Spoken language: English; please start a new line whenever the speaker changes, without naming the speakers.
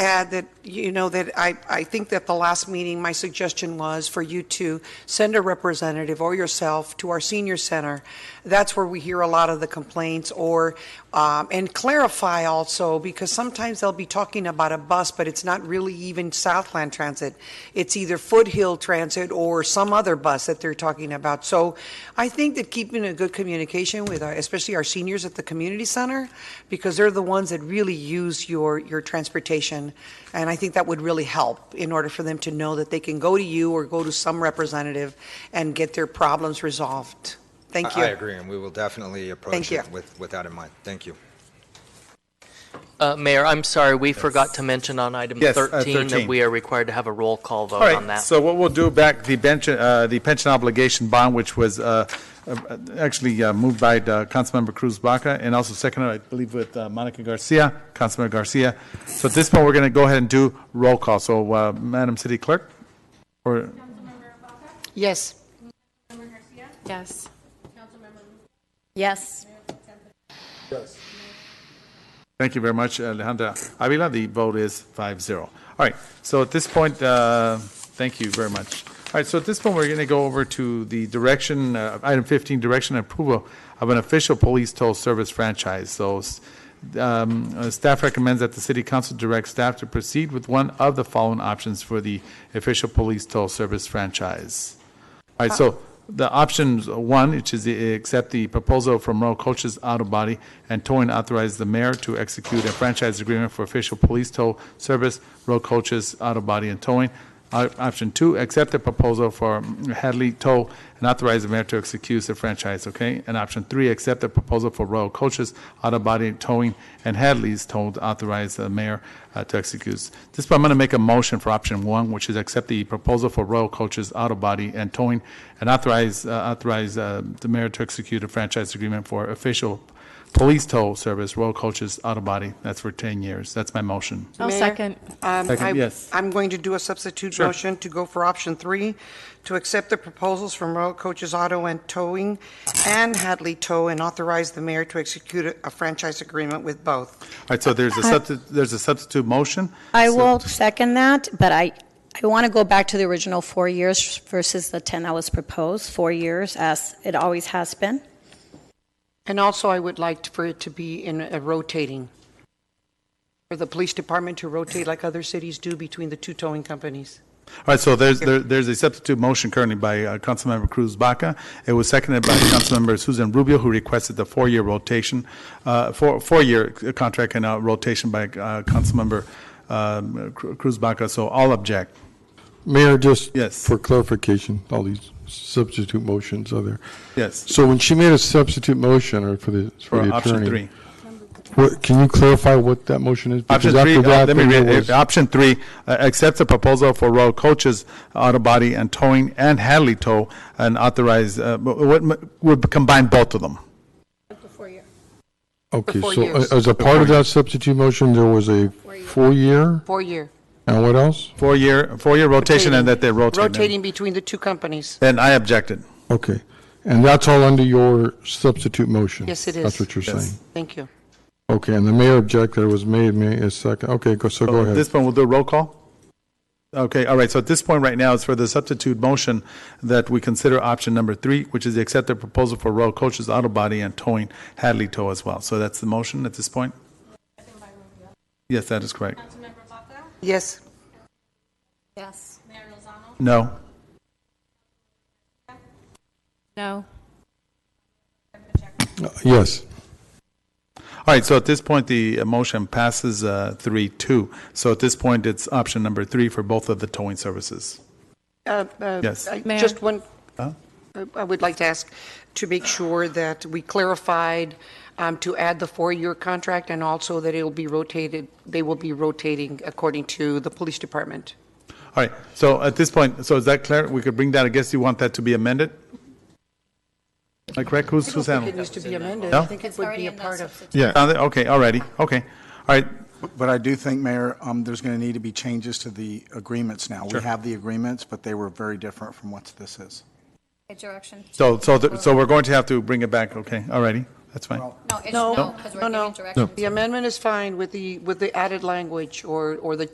add that, you know, that I, I think that the last meeting, my suggestion was for you to send a representative or yourself to our senior center. That's where we hear a lot of the complaints or, um, and clarify also, because sometimes they'll be talking about a bus, but it's not really even Southland Transit. It's either Foothill Transit or some other bus that they're talking about. So I think that keeping a good communication with, our- especially our seniors at the community center, because they're the ones that really use your, your transportation. And I think that would really help in order for them to know that they can go to you or go to some representative and get their problems resolved. Thank you.
I I agree, and we will definitely approach
Thank
it
you.
with, with that in mind. Thank you.
Uh, Mayor, I'm sorry, we forgot to mention on item
Yes, uh,
13 that
13.
we are required to have a roll call vote
All
on
right,
that.
so what we'll do back, the bench, uh, the pension obligation bond, which was uh, uh, actually uh, moved by uh, Councilmember Cruz Baca and also seconded, I believe, with uh, Monica Garcia, Councilmember Garcia. So at this point, we're going to go ahead and do roll call. So uh, Madam City Clerk, or,
Yes.
Yes.
Yes.
thank you very much, Alejandra Avila, the vote is 5-0. All right, so at this point, uh, thank you very much. All right, so at this point, we're going to go over to the direction, uh, item 15, direction and approval of an official police toll service franchise. So s- um, uh, Staff recommends that the city council direct staff to proceed with one of the following options for the official police toll service franchise. All right, so the options, one, which is the- accept the proposal from Royal Coaches Auto Body and Towing authorize the mayor to execute a franchise agreement for official police tow service, Royal Coaches Auto Body and Towing. O- Option two, accept the proposal for Hadley Tow and authorize the mayor to execute the franchise, okay? And option three, accept the proposal for Royal Coaches Auto Body and Towing and Hadley's Tow to authorize the mayor uh, to execute. This point, I'm going to make a motion for option one, which is accept the proposal for Royal Coaches Auto Body and Towing and authorize, uh, authorize uh, the mayor to execute a franchise agreement for official police tow service, Royal Coaches Auto Body. That's for 10 years. That's my motion.
I'll
Mayor?
second.
Um,
Second,
I-
yes.
I'm going to do a substitute
Sure.
motion to go for option three, to accept the proposals from Royal Coaches Auto and Towing and Hadley Tow and authorize the mayor to execute a- a franchise agreement with both.
All right, so there's a substitute, there's a substitute motion.
I
So-
will second that, but I, I want to go back to the original four years versus the 10 that was proposed, four years as it always has been.
And also, I would like for it to be in a rotating, for the police department to rotate like other cities do between the two towing companies.
All right, so there's, there- there's a substitute motion currently by uh, Councilmember Cruz Baca. It was seconded by Councilmember Susan Rubio, who requested the four-year rotation, uh, four, four-year contract and uh, rotation by uh, Councilmember um, Cru- Cruz Baca, so all object.
Mayor, just
Yes.
for clarification, all these substitute motions are there.
Yes,
So when she made a substitute motion or for the, for
for
the
uh, option
attorney.
three.
What, can you clarify what that motion is? Because
Option three,
after
uh,
that,
let me
there
read,
was-
it. option three, uh, accept the proposal for Royal Coaches, Auto Body and Towing and Hadley Tow and authorize, uh, would, would combine both of them.
Okay,
four
so
years.
a- as a part of that substitute motion, there was a four-year,
Four-year.
and what else?
Four-year, four-year rotation and that they rotate. them.
Rotating between the two companies.
Then I objected.
Okay, and that's all under your substitute motion?
Yes, it is.
That's what you're
Yes.
saying?
Thank you.
Okay, and the mayor objected, it was made, may, is second, okay, go, so go
So at
ahead.
Oh, this point, we'll do a roll call? Okay, all right, so at this point right now, it's for the substitute motion that we consider option number three, which is the accepted proposal for Royal Coaches Auto Body and Towing Hadley Tow as well. So that's the motion at this point? Yes, that is correct.
Yes.
Yes.
No?
No.
Yes.
All right, so at this point, the uh, motion passes uh, three, two. So at this point, it's option number three for both of the towing services.
Uh, uh,
Yes.
I-
Mayor?
Just one, I- I would like to ask to make sure that we clarified um, to add the four-year contract and also that it'll be rotated, they will be rotating according to the police department.
All right, so at this point, so is that clear? We could bring that, I guess you want that to be amended? Am I correct? Who's, who's handling?
It needs to be amended.
No?
I think it would be a part of.
Yeah. Okay, all righty, okay. All right,
But I do think, Mayor, um, there's going to need to be changes to the agreements now. We have the agreements, but they were very different from what this is.
Direction.
so, so, the- so we're going to have to bring it back, okay, all righty, that's fine.
No, it's
No, no, no. The amendment is fine with the, with the added language or, or the